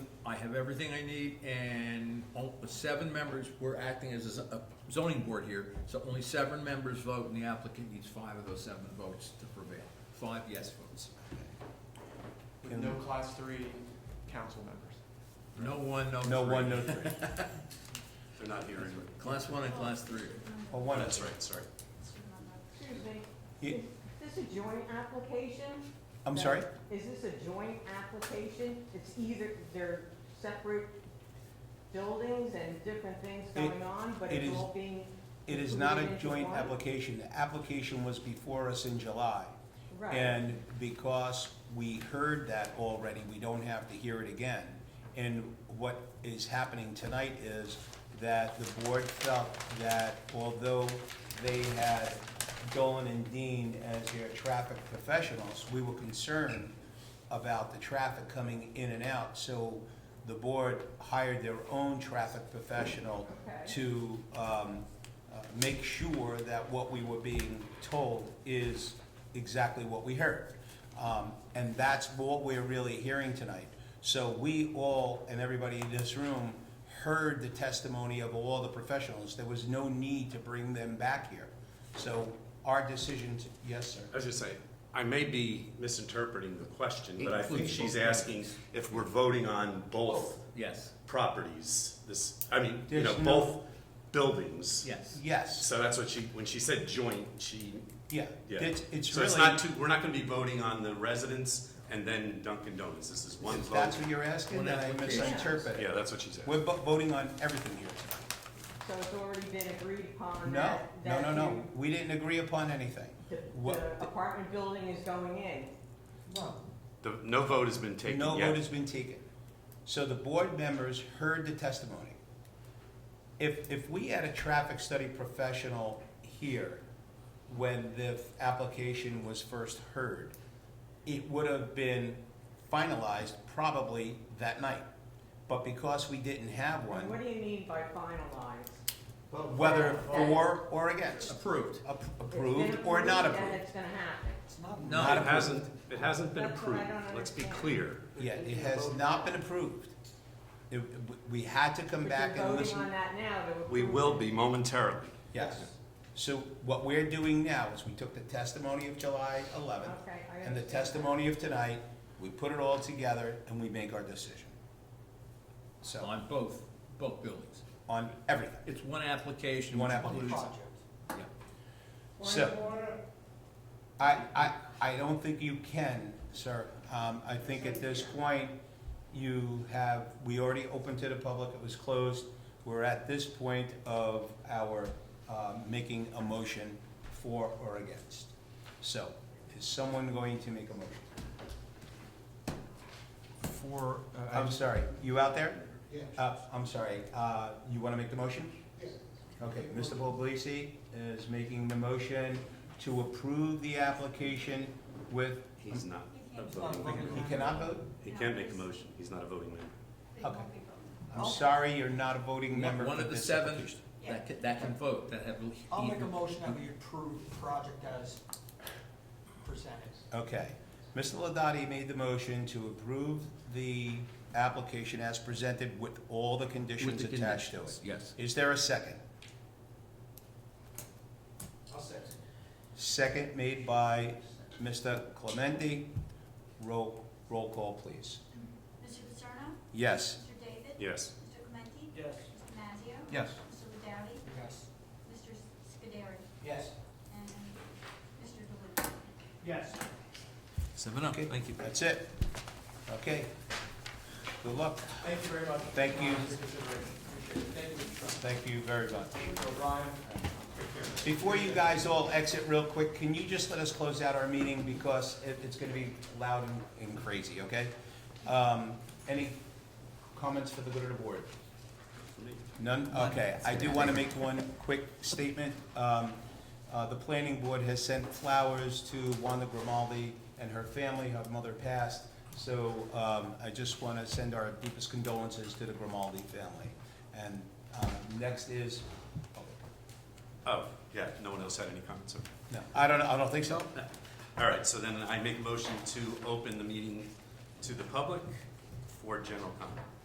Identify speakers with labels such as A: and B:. A: I have everything I need, and o- seven members, we're acting as a z- a zoning board here, so only seven members vote, and the applicant needs five of those seven votes to prevail. Five yes votes.
B: With no class three council members.
A: No one, no
C: No
A: Oh, three.
C: one, no three.
D: They're not here anyway.
A: Class one and class three.
C: Oh,
D: Oh,
C: one,
D: that's right, sorry.
E: Excuse me,
C: Yeah.
E: is this a joint application?
C: I'm sorry?
E: Is this a joint application? It's either, they're separate buildings and different things
C: It-
E: going on, but
C: it
E: it's
C: is-
E: all being,
C: It is not a
E: Included into
C: joint
E: one?
C: application. The application was before us in July.
E: right.
C: And because we heard that already, we don't have to hear it again. And what is happening tonight is that the board felt that although they had Dolan and Dean as their traffic professionals, we were concerned about the traffic coming in and out. So the board hired their own traffic professional
E: Okay.
C: to um, uh, make sure that what we were being told is exactly what we heard. Um, And that's what we're really hearing tonight. So we all, and everybody in this room, heard the testimony of all the professionals. There was no need to bring them back here. So our decision, to- yes, sir?
D: I was just saying, I may be misinterpreting the question, but I think
A: Includes
D: she's
A: both
D: asking if we're voting on both
A: Yes,
D: properties, this, I mean, you know,
C: There's no-
D: both buildings.
A: yes.
C: Yes,
D: So that's what she, when she said joint, she,
C: yeah.
D: yeah.
C: It's it's
D: So
C: really.
D: it's not two, we're not gonna be voting on the residents and then Dunkin' Donuts, this is one
C: If
D: vote.
C: that's what you're asking,
A: One
C: then I
A: application.
C: misinterpreted.
D: Yeah, that's what she's
C: We're
D: asking.
C: vo- voting on everything here tonight.
E: So it's already been agreed upon
C: No,
E: that,
C: no,
E: that
C: no, no,
E: you-
C: we didn't agree upon anything.
E: the-
C: What-
E: The apartment building is going in.
D: The, no vote has been taken
C: No vote
D: yet.
C: has been taken. So the board members heard the testimony. If, if we had a traffic study professional here when the application was first heard, it would have been finalized probably that night. But because we didn't have
E: And
C: one,
E: What do you mean by finalized?
C: whether for or against,
A: Approved.
C: ap-
E: It's been
C: approved or not
E: approved, And
C: approved.
E: it's gonna happen.
A: No,
C: Not
D: It
C: approved.
D: hasn't, it hasn't been
E: That's what I
D: approved,
E: don't
D: let's be
E: understand.
D: clear.
C: Yeah, it has not been approved. It, we had to come
E: But
C: back
E: you're
C: and
E: voting on
C: listen.
E: that now to
D: We
E: approve
D: will
E: it.
D: be momentarily.
C: Yes. So what we're doing now is we took the testimony of July eleventh
E: Okay, I
C: and the
E: understand.
C: testimony of tonight, we put it all together and we make our decision. So,
A: On both, both buildings.
C: on everything.
A: It's one application.
C: One
A: which
C: application.
A: includes- Yeah.
C: So, I, I, I don't think you can, sir. Um, I think at this point, you have, we already opened to the public, it was closed. We're at this point of our, um, making a motion for or against. So, is someone going to make a motion?
F: For, uh, I
C: I'm
F: just-
C: sorry, you out there? Uh, I'm sorry, uh, you wanna make the motion? Okay, Mr. Poblisi is making the motion to approve the application with,
D: He's not a voting member.
C: he cannot vote?
D: He can make a motion, he's not a voting member.
C: Okay. I'm sorry, you're not a voting member
A: One
C: for
A: of the
C: this
A: seven
C: application.
A: that can, that can vote, that have.
G: I'll make a motion that we approve the project as presented.
C: Okay, Mr. Ladati made the motion to approve the application as presented with all the
A: With
C: conditions
A: the
C: attached to it.
A: conditions, Yes.
C: Is there a second?
G: I'll second.
C: Second made by Mr. Clementi. Roll, roll call, please.
H: Mr. Paterno?
C: Yes.
H: Mr. David?
D: Yes.
H: Mr. Clementi?
G: Yes.
H: Mr. Mazzio?
C: Yes.
H: Mr. Ladowdy?
G: Yes.
H: Mr. Scuderi?
G: Yes.
H: And Mr. DeLuca?
G: Yes.
A: Seven up,
C: Okay.
A: thank you.
C: That's it. Okay. Good luck.
G: Thank you very much.
C: Thank you.
G: for your consideration. Appreciate it. Thank you, Mr. Trump.
C: Thank you very much.
G: Thank you, O'Brien. Take care.
C: Before you guys all exit real quick, can you just let us close out our meeting because it, it's gonna be loud and, and crazy, okay? Um, any comments for the good of the board? None? Okay, I do wanna make one quick statement. Um, uh, the planning board has sent flowers to Wanda Grimaldi and her family, her mother passed. So, um, I just wanna send our deepest condolences to the Grimaldi family. And, um, next is, oh,
D: Oh, yeah, no one else had any comments, okay.
C: no, I don't, I don't think so.
D: All right, so then I make a motion to open the meeting to the public for general comment.